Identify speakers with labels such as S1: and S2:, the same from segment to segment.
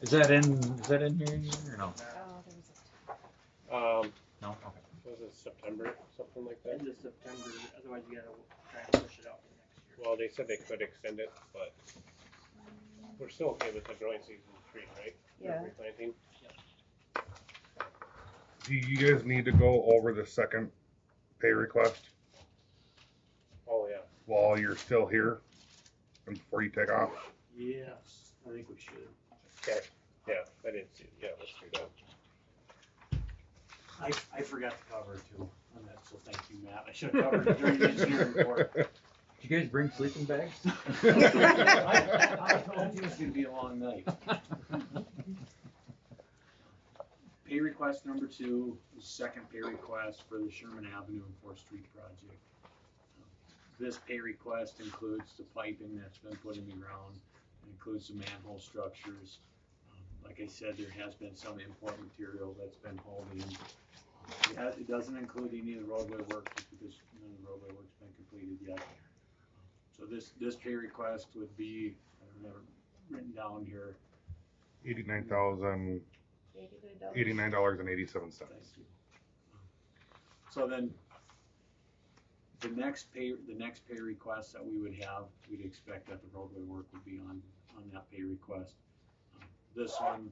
S1: Is that in, is that in here or no?
S2: Oh,
S3: Um,
S1: No, okay.
S3: was it September, something like that?
S4: end of September, otherwise you gotta try and push it out to next year.
S3: Well, they said they could extend it, but we're still okay with the growing season three, right? For
S5: Yeah.
S3: Replanting.
S6: Do you guys need to go over the second pay request
S3: Oh, yeah.
S6: while you're still here and before you take off?
S4: Yes, I think we should.
S3: Yeah, I didn't see, yeah, let's do that.
S4: I, I forgot to cover it too, on that, so thank you, Matt. I should have covered it during the engineering report.
S1: Did you guys bring sleeping bags?
S4: I I told you it was gonna be a long night. Pay request number two, is second pay request for the Sherman Avenue and Fourth Street project. This pay request includes the piping that's been put in the ground, it includes the manhole structures. Um, Like I said, there has been some import material that's been hauled in. It has- It doesn't include any of the roadway work, just because none of the roadway work's been completed yet. So this, this pay request would be, I don't have it written down here,
S6: Eighty-nine thousand, eighty-nine dollars and eighty-seven
S4: thank
S6: cents.
S4: you. So then, the next pay, the next pay request that we would have, we'd expect that the roadway work would be on, on that pay request. This one,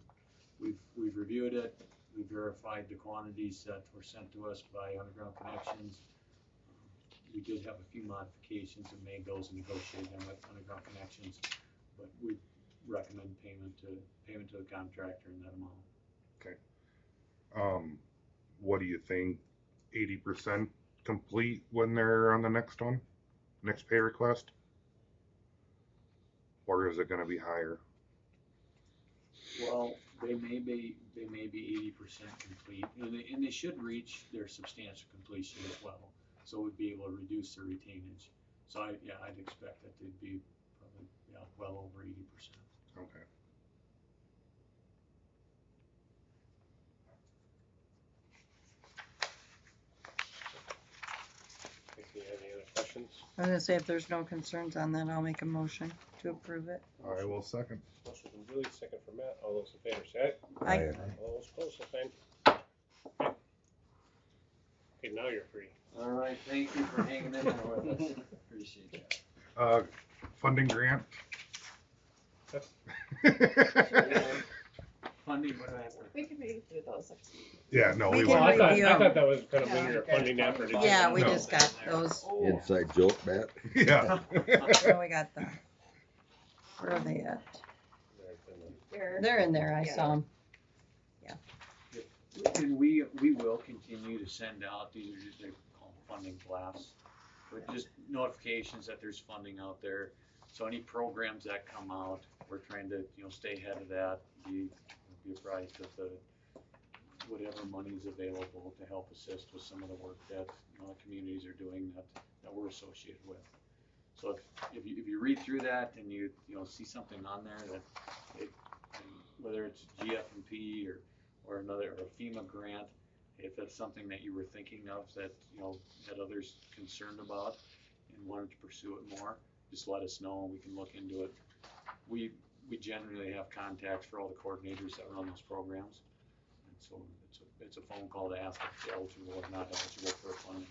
S4: we've, we've reviewed it, we verified the quantities that were sent to us by Underground Connections. We did have a few modifications and made those and negotiated them with Underground Connections, but we recommend payment to, payment to the contractor in that amount.
S6: Um, what do you think? Eighty percent complete when they're on the next one, next pay request? Or is it gonna be higher?
S4: Well, they may be, they may be eighty percent complete, and they, and they should reach their substantial completion as well. So we'd be able to reduce their retainage. So I, yeah, I'd expect that they'd be probably, yeah, well over eighty percent.
S6: Okay.
S3: If you have any other questions,
S5: I'm gonna say if there's no concerns on that, I'll make a motion to approve it.
S6: I will second.
S3: motion from Julie, second from Matt, all those in favor say
S5: I,
S3: aye. All those opposed, same sign. Okay, now you're free.
S4: All right, thank you for hanging in there with us. Appreciate that.
S6: Uh, funding grant?
S4: Funding, what do I have for?
S2: We can read through those.
S6: Yeah, no, we
S5: We
S3: Well,
S6: won't.
S3: I thought, I
S5: review.
S3: thought that was kind of
S2: Yeah.
S3: when you're funding effort.
S5: yeah, we
S6: No.
S5: just got those,
S2: oh,
S7: Inside joke, Matt.
S6: Yeah.
S5: so we got the, where are they at? They're in there, I saw them.
S4: And we, we will continue to send out, these are just, they call them funding blasts, but just notifications that there's funding out there. So any programs that come out, we're trying to, you know, stay ahead of that, be, be apprised of the, whatever money's available to help assist with some of the work that, you know, communities are doing that, that we're associated with. So if, if you, if you read through that and you, you know, see something on there that, it, whether it's GFMP or or another, or a FEMA grant, if that's something that you were thinking of that, you know, had others concerned about and wanted to pursue it more, just let us know and we can look into it. We, we generally have contacts for all the coordinators that run those programs. And so it's a, it's a phone call to ask if they're eligible or not eligible for funding.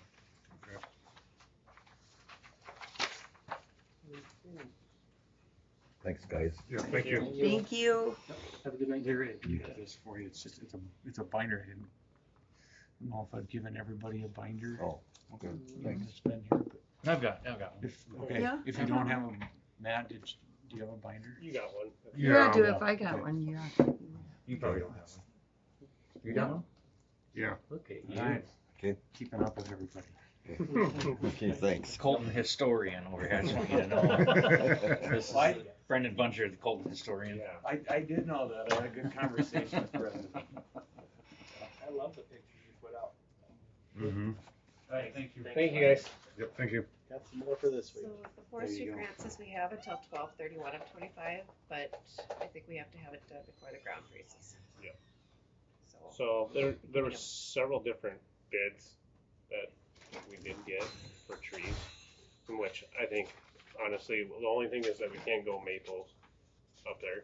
S7: Thanks, guys.
S6: Yeah, thank you.
S5: Thank you.
S4: Have a good night. There is, you got this for you, it's just, it's a, it's a binder hidden. I don't know if I've given everybody a binder.
S7: Oh, okay, thanks.
S4: It's been here, but
S1: I've got, I've got
S4: If, okay,
S5: Yeah.
S4: if you don't have a, Matt, did, you- do you have a binder?
S3: You got one.
S5: Yeah,
S6: Yeah,
S5: do if I got one, yeah.
S1: You probably don't have one. You got one?
S6: Yeah.
S1: Look at
S4: Alright.
S7: Okay.
S4: Keeping up with everybody.
S7: Okay, thanks.
S8: Colton historian over here. I just want you to know. This is
S4: I,
S8: Brendan Buncher, the Colton historian.
S3: Yeah.
S4: I, I did know that, I had a good conversation with Brendan.
S1: I love the pictures you put out.
S6: Mhm.
S4: Alright, thank you.
S3: Thank you, guys.
S6: Yep, thank you.
S1: Got some more for this
S2: So the
S4: There
S2: forestry
S4: you go.
S2: grant says we have until twelve thirty-one of twenty-five, but I think we have to have it done before the ground freezes.
S3: Yep.
S2: So,
S3: So there, there were several different bids that we did get for trees, from which I think, honestly, the only thing is that we can't go maples up there.